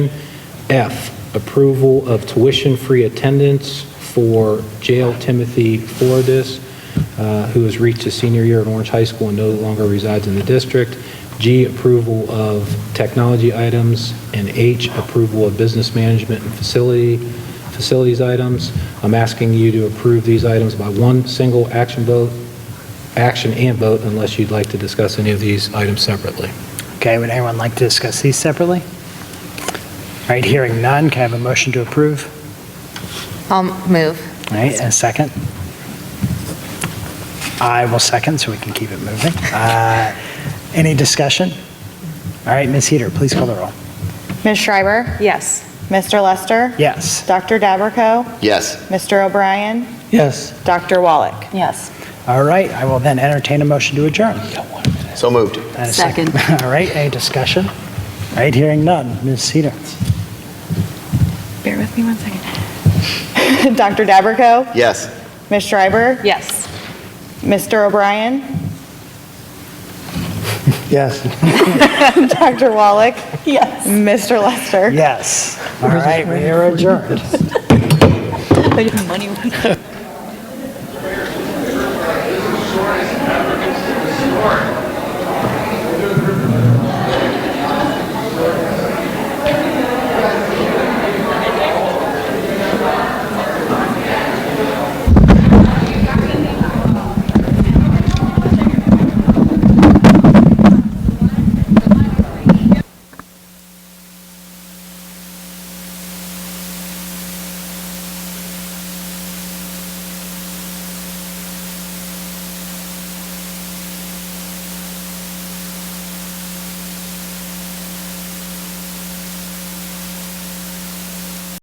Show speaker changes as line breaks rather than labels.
F, approval of tuition-free attendance for jail Timothy Fordis, uh, who has reached his senior year at Orange High School and no longer resides in the district. G, approval of technology items. And H, approval of business management and facility, facilities items. I'm asking you to approve these items by one single action vote, action and vote, unless you'd like to discuss any of these items separately.
Okay, would anyone like to discuss these separately? All right, hearing none, can I have a motion to approve?
I'll move.
All right, and a second? I will second, so we can keep it moving. Uh, Any discussion? All right, Ms. Heater, please call the roll.
Ms. Schreiber?
Yes.
Mr. Lester?
Yes.
Dr. Dabberco?
Yes.
Mr. O'Brien?
Yes.
Dr. Wallach?
Yes.
All right, I will then entertain a motion to adjourn.
So moved.
And a All right, any discussion? All right, hearing none, Ms. Heater.
Bear with me one second. Dr. Dabberco?
Yes.
Ms. Schreiber?
Yes.
Mr. O'Brien?
Yes.
Dr. Wallach?
Yes.
Mr. Lester?
Yes. All right, we are adjourned.
Money.
Short